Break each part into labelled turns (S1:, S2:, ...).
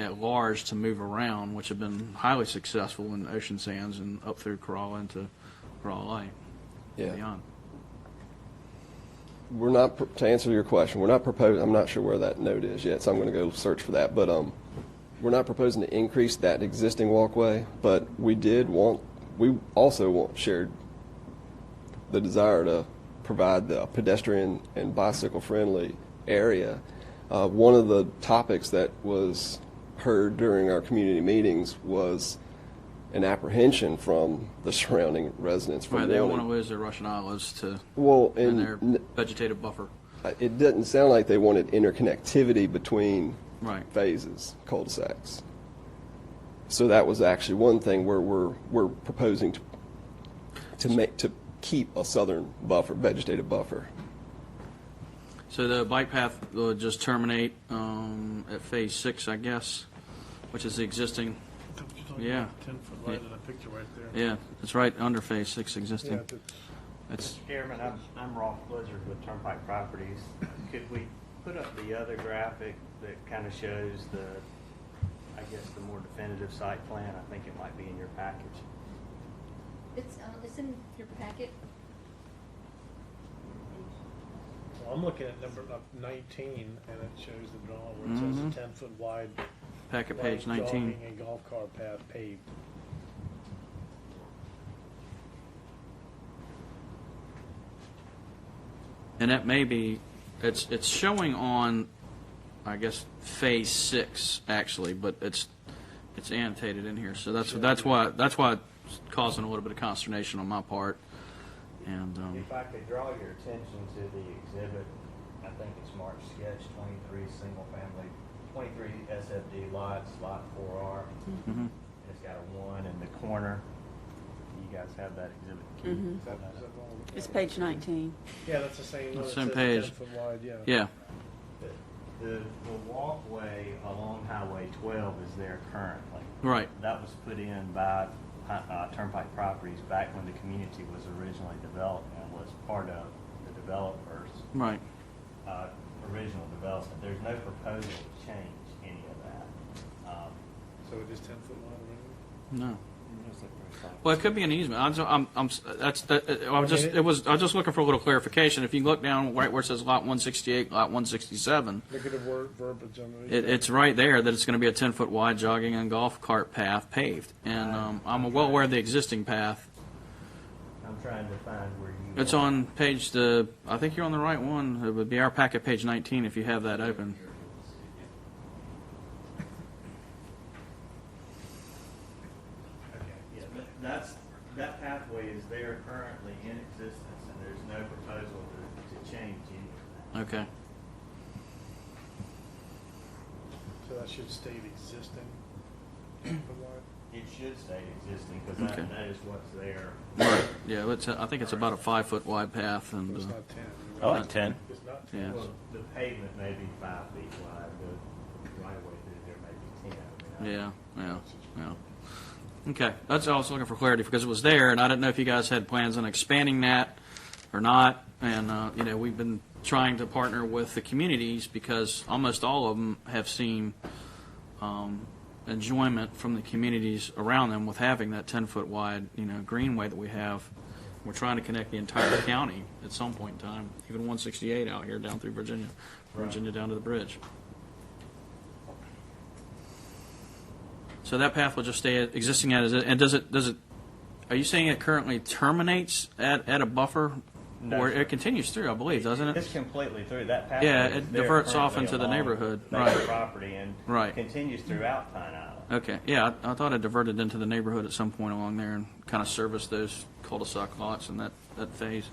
S1: at large to move around, which have been highly successful in Ocean Sands and up through Crawl into Crawl Lake and
S2: Yeah.
S1: beyond.
S2: We're not, pr- to answer your question, we're not proposing, I'm not sure where that note is yet, so I'm going to go search for that. But um, we're not proposing to increase that existing walkway, but we did want, we also want shared the desire to provide the pedestrian and bicycle-friendly area. Uh, One of the topics that was heard during our community meetings was an apprehension from the surrounding residents from
S1: Right, they don't want to
S2: wanting.
S1: lose their Russian olives to,
S2: Well,
S1: and
S2: and
S1: their
S2: n-
S1: vegetative buffer.
S2: Uh, It didn't sound like they wanted interconnectivity between
S1: Right.
S2: phases, cul-de-sacs. So that was actually one thing where we're, we're proposing to, to make, to keep a southern buffer, vegetative buffer.
S1: So the bike path will just terminate um, at Phase 6, I guess, which is the existing, Yeah.
S3: Ten-foot line in a picture right there.
S1: yeah, it's right under Phase 6
S3: Yeah,
S1: existing.
S3: that's-
S1: It's,
S4: Chairman, I'm, I'm Rolf Blizzard with Turnpike Properties. Could we put up the other graphic that kind of shows the, I guess, the more definitive site plan? I think it might be in your package.
S5: It's, uh, it's in your packet.
S3: well, I'm looking at number up nineteen, and it shows the draw where it says a ten-foot wide.
S1: packet
S3: light
S1: Mm-hmm. page 19.
S3: Jogging and golf cart path paved.
S1: And that may be, it's, it's showing on, I guess, phase six, actually, but it's, it's annotated in here, so that's, that's why, that's why it's causing a little bit of consternation on my part, and, um,
S4: If I could draw your attention to the exhibit, I think it's marked sketch twenty-three, single-family, twenty-three SFD lots, lot four R. It's got a one in the corner. You guys have that exhibit key?
S3: Is that- is that all?
S6: It's page 19.
S3: Yeah, that's the same one.
S1: The
S3: It
S1: same
S3: says
S1: page.
S3: Ten-foot wide, yeah.
S1: yeah,
S4: The, the the walkway along Highway 12 is there currently.
S1: right,
S4: That was put in by uh, uh, Turnpike Properties back when the community was originally developed and was part of the developer's
S1: right.
S4: uh, original development. There's no proposal to change any of that. Um,
S3: So it is ten-foot wide, right?
S1: No. Well, it could be an easement. I'm, I'm, I'm, that's, that, uh, I was just, it was, I was just looking for a little clarification. If you look down right where it says lot one sixty-eight, lot one sixty-seven,
S3: Look at the word, verbiage on the.
S1: it, it's right there that it's gonna be a ten-foot wide jogging and golf cart path paved. And, um, I'm well aware of the existing path.
S4: I'm trying to find where you.
S1: It's
S4: are.
S1: on page the, I think you're on the right one. It would be our packet, page 19, if you have that open.
S4: Okay, yeah, that- that's, that pathway is there currently in existence and there's no proposal to, to change any of that.
S1: Okay.
S3: So that should state existing. ten-foot wide.
S4: It should stay existing, because that,
S1: Okay.
S4: that is what's there.
S1: Yeah, it's, I think it's about a five-foot wide path,
S3: But
S1: and,
S3: it's
S1: uh,
S3: not ten.
S7: I like 10.
S3: It's not ten.
S1: Oh. yeah,
S4: Well, the pavement may be five feet wide, the right of way through there may be ten. I mean, I-
S1: yeah, yeah, yeah. Okay, that's all I was looking for clarity, because it was there, and I didn't know if you guys had plans on expanding that or not. And, uh, you know, we've been trying to partner with the communities, because almost all of them have seen um, enjoyment from the communities around them with having that 10-foot wide, you know, greenway that we have. We're trying to connect the entire county at some point in time, even 168 out here down through Virginia, Virginia down to the bridge. So that path will just stay existing as, it- and does it, does it, are you saying it currently terminates at, at a buffer?
S4: No,
S1: Or
S4: sir.
S1: it continues through, I believe, doesn't
S4: It's
S1: it?
S4: completely through, that pathway.
S1: Yeah,
S4: is
S1: it
S4: there
S1: diverts off
S4: currently
S1: into the
S4: along
S1: neighborhood,
S4: that
S1: right.
S4: Property and.
S1: Right.
S4: Continues throughout Pine Island.
S1: Okay, yeah, I I thought it diverted into the neighborhood at some point along there and kind of serviced those cul-de-sac lots in that, that phase.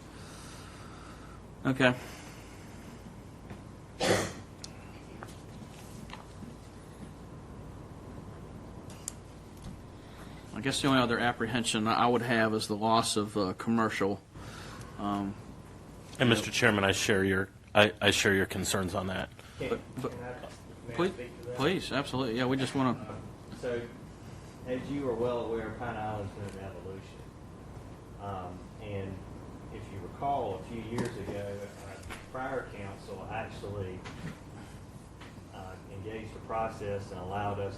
S1: Okay. I guess the only other apprehension I would have is the loss of uh, commercial. Um,
S7: And Mr. Chairman, I share your, I, I share your concerns on that.
S4: Can
S1: But- but-
S4: can I- may I
S1: Please,
S4: speak to that?
S1: please, absolutely, yeah, we just want to,
S4: So, as you are well aware, Pine Island's been an evolution. Um, and if you recall, a few years ago, our prior council actually uh, engaged a process and allowed us